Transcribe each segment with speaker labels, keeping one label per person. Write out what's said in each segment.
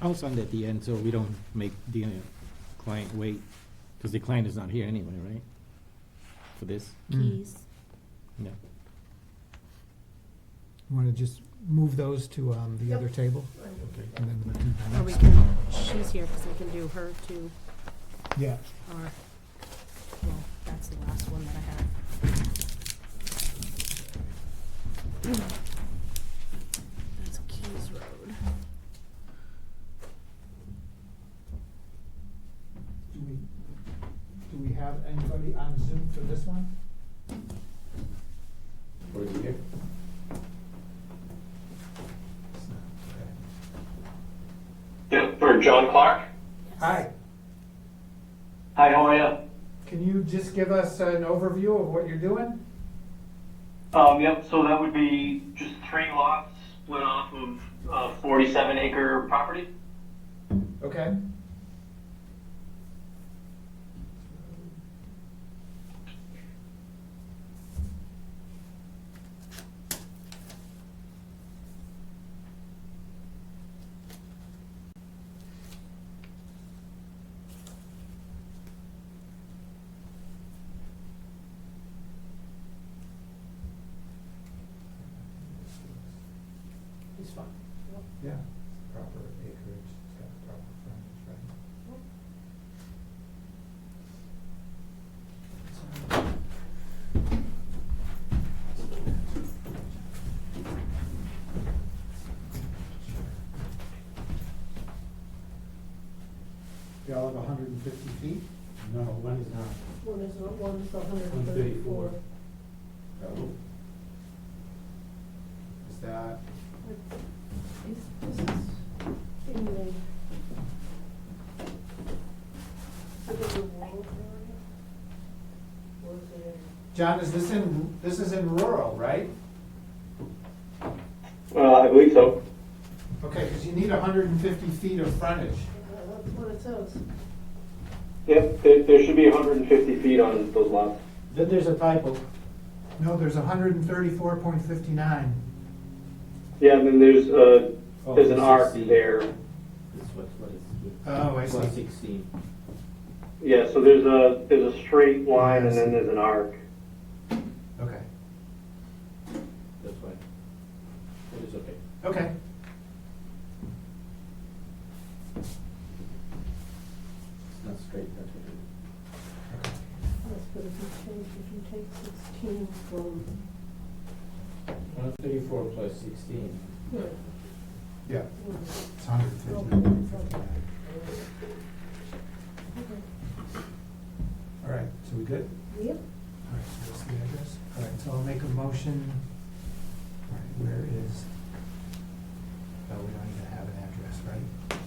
Speaker 1: I'll send at the end, so we don't make the uh, client wait, because the client is not here anyway, right? For this,
Speaker 2: Keys.
Speaker 1: no.
Speaker 3: Want to just move those to um, the other table? And then we'll do the
Speaker 2: Or we
Speaker 3: next.
Speaker 2: can, she's here because we can do her too,
Speaker 3: Yeah,
Speaker 2: or, well, that's the last one that I have. That's Keys Road.
Speaker 3: do we, do we have anybody on Zoom for this one?
Speaker 4: Were you here?
Speaker 3: It's not, okay.
Speaker 5: Yeah, for John Clark.
Speaker 3: Hi,
Speaker 5: Hi, how are you?
Speaker 3: can you just give us an overview of what you're doing?
Speaker 5: Um, yep, so that would be just three lots split off of a 47 acre property.
Speaker 3: Okay,
Speaker 4: It's fine.
Speaker 3: yeah.
Speaker 4: Proper acreage, it's got proper frontage, right?
Speaker 3: They all have hundred and fifty feet?
Speaker 4: No, one is not.
Speaker 6: One is, one is hundred and
Speaker 4: 134.
Speaker 6: thirty-four.
Speaker 4: Oh. Is that,
Speaker 6: This is in the, under the wall area? Or is it?
Speaker 3: John, is this in, this is in rural, right?
Speaker 5: Uh, I believe so.
Speaker 3: Okay, because you need hundred and fifty feet of frontage.
Speaker 6: uh, That's what it says.
Speaker 5: Yep, there, there should be 150 feet on those lots.
Speaker 4: then there's a typo.
Speaker 3: No, there's hundred and thirty-four point fifty-nine.
Speaker 5: Yeah, and then there's, uh,
Speaker 4: Oh,
Speaker 5: there's
Speaker 4: this
Speaker 5: an
Speaker 4: is
Speaker 5: arc
Speaker 4: C.
Speaker 5: there.
Speaker 4: This what, what is?
Speaker 3: Oh, I
Speaker 4: Plus
Speaker 3: see.
Speaker 4: sixteen.
Speaker 5: Yeah, so there's a, there's a straight line and then there's an arc.
Speaker 3: Okay,
Speaker 4: That's why. It is okay.
Speaker 3: okay.
Speaker 4: It's not straight, that's what it is.
Speaker 6: Yes, but if you change, if you take sixteen from,
Speaker 4: One thirty-four plus sixteen.
Speaker 6: yeah,
Speaker 3: Yeah,
Speaker 6: you know,
Speaker 3: it's hundred and fifty-nine.
Speaker 6: okay,
Speaker 3: All right, so we good?
Speaker 6: yep,
Speaker 3: All right, so that's the address. All right, so I'll make a motion. All right, where is? Oh, we don't even have an address, right?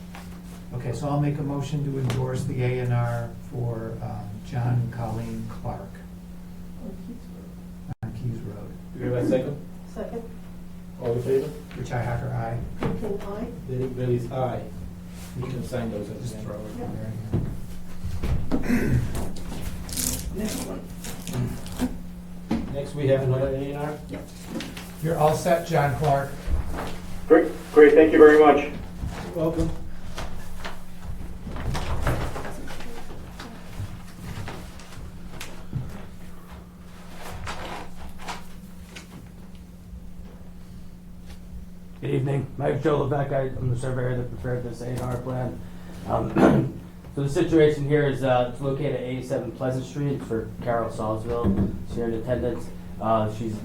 Speaker 3: Okay, so I'll make a motion to endorse the A and R for um, John and Colleen Clark
Speaker 6: on Keith's
Speaker 3: on Keys Road.
Speaker 4: Do we have a second?
Speaker 6: Road. Second,
Speaker 4: All in favor?
Speaker 3: Richi Hacker, aye.
Speaker 6: Clinton, I,
Speaker 4: Derek Bailey's aye. You can sign those at
Speaker 3: Just
Speaker 4: the end.
Speaker 3: throw it in
Speaker 6: Yeah.
Speaker 3: there.
Speaker 4: Next, we have another A and R.
Speaker 3: You're all set, John Clark.
Speaker 5: Great, great, thank you very much.
Speaker 4: Welcome.
Speaker 7: Good evening, Mike Joe Levesque, I- I'm the surveyor that prepared this A and R plan. Um, So the situation here is, uh, it's located at 87 Pleasant Street for Carol Salzville, she's here in attendance. Uh, She's